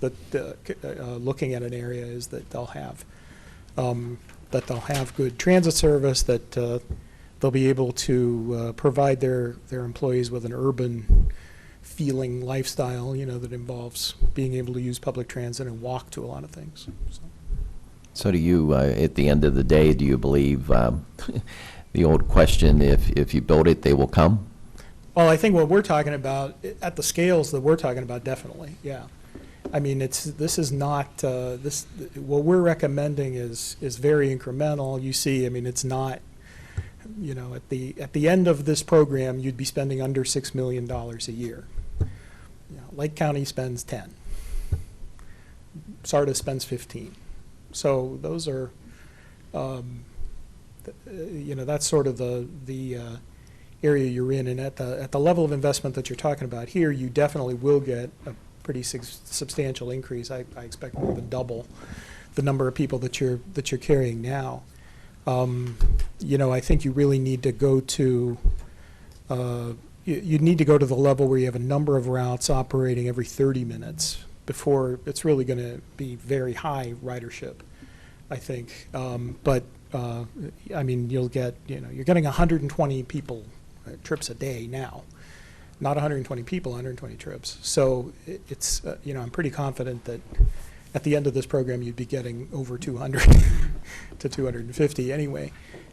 that, the, uh, looking at an area is that they'll have, um, that they'll have good transit service, that uh, they'll be able to uh, provide their, their employees with an urban feeling lifestyle, you know, that involves being able to use public transit and walk to a lot of things, so. So do you, uh, at the end of the day, do you believe um, the old question, if, if you build it, they will come? Well, I think what we're talking about, at the scales that we're talking about, definitely, yeah. I mean, it's, this is not, uh, this, what we're recommending is, is very incremental. You see, I mean, it's not, you know, at the, at the end of this program, you'd be spending under $6 million a year. You know, Lake County spends 10. Sardis spends 15. So those are, um, th- uh, you know, that's sort of the, the uh, area you're in. And at the, at the level of investment that you're talking about here, you definitely will get a pretty sus- substantial increase. I, I expect more than double the number of people that you're, that you're carrying now. Um, You know, I think you really need to go to, uh, you, you need to go to the level where you have a number of routes operating every 30 minutes before it's really going to be very high ridership, I think. Um, But, uh, I mean, you'll get, you know, you're getting 120 people, uh, trips a day now, not 120 people, 120 trips. So it- it's, uh, you know, I'm pretty confident that at the end of this program, you'd be getting over 200 to 250 anyway,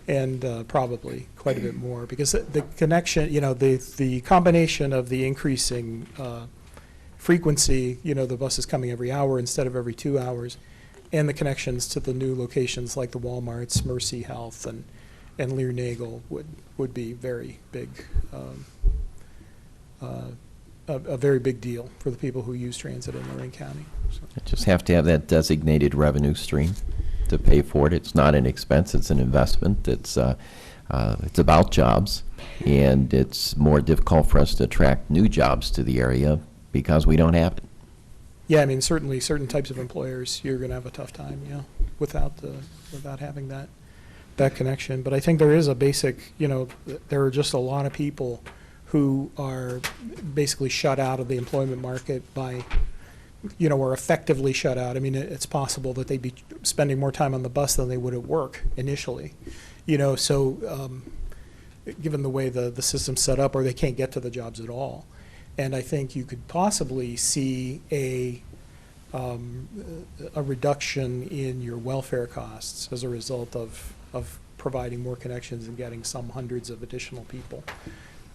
and uh, probably quite a bit more, because the connection, you know, the, the combination of the increasing uh, frequency, you know, the bus is coming every hour instead of every two hours, and the connections to the new locations like the Walmarts, Mercy Health, and, and Lear Nagel would, would be very big, um, uh, a, a very big deal for the people who use transit in Lorraine County. so. Just have to have that designated revenue stream to pay for it. It's not an expense, it's an investment. It's, uh, uh, it's about jobs, and it's more difficult for us to attract new jobs to the area because we don't have it. Yeah, I mean, certainly, certain types of employers, you're going to have a tough time, yeah, without the, without having that, that connection. But I think there is a basic, you know, th- there are just a lot of people who are basically shut out of the employment market by, you know, are effectively shut out. I mean, it- it's possible that they'd be spending more time on the bus than they would at work initially, you know, so, um, given the way the, the system's set up, or they can't get to the jobs at all. And I think you could possibly see a, um, a reduction in your welfare costs as a result of, of providing more connections and getting some hundreds of additional people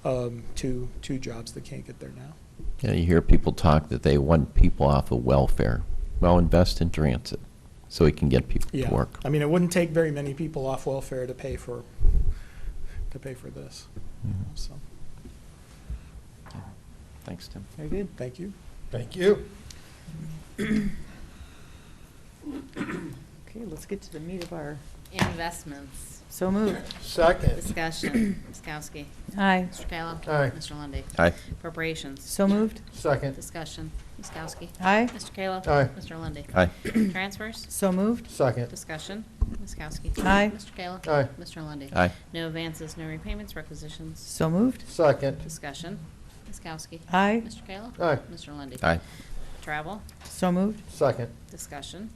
um, to, to jobs that can't get there now. You know, you hear people talk that they want people off of welfare. Well, invest in transit so we can get people Yeah. to work. I mean, it wouldn't take very many people off welfare to pay for, to pay for this. So, Mm-hmm. Thanks, Tim. very good. Thank you. Thank you. Okay, let's get to the meat of our, Investments, so moved. Second. discussion, Ms. Kowski, Aye. Mr. Kayla. Aye. Mr. Lundy. Aye. Appropriations, So moved. Second. discussion, Ms. Kowski, Aye. Mr. Kayla. Aye. Mr. Lundy. Aye. Transfers, So moved. Second. discussion, Ms. Kowski. Aye. Mr. Kayla. Aye. Mr. Lundy. Aye. No advances, no repayments, requisitions, So moved. Second. discussion, Ms. Kowski. Aye. Mr. Kayla. Aye. Mr. Lundy. Aye. Travel, So moved. Second. discussion,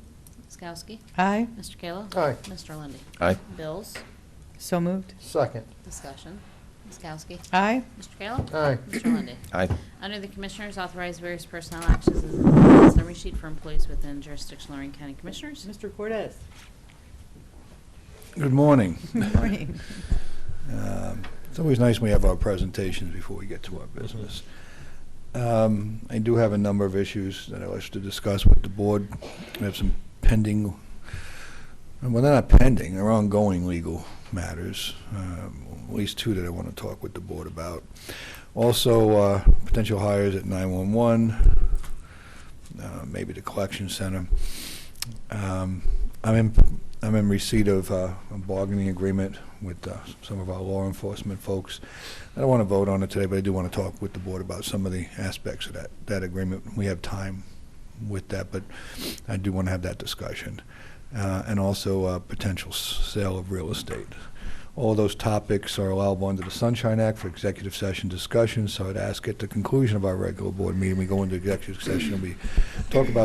Ms. Kowski. Aye. Mr. Kayla. Aye. Mr. Lundy. Aye. Bills, So moved. Second. discussion, Ms. Kowski. Aye. Mr. Kayla. Aye. Mr. Lundy. Aye. Under the Commissioners, authorize various personnel actions as indicated in the summary sheet for employees within jurisdiction of Lorraine County Commissioners. Mr. Cortez. Good morning. Good morning. Um, It's always nice when we have our presentations before we get to our business. Um, I do have a number of issues that I wish to discuss with the board. We have some pending, well, they're not pending, they're ongoing legal matters, um, at least two that I want to talk with the board about. Also, uh, potential hires at 911, uh, maybe the collection center. Um, I'm in, I'm in receipt of uh, a bargaining agreement with uh, some of our law enforcement folks. I don't want to vote on it today, but I do want to talk with the board about some of the aspects of that, that agreement. We have time with that, but I do want to have that discussion. Uh, And also uh, potential s- sale of real estate. All those topics are allowable under the Sunshine Act for executive session discussion, so I'd ask at the conclusion of our regular board meeting, we go into executive session and we talk about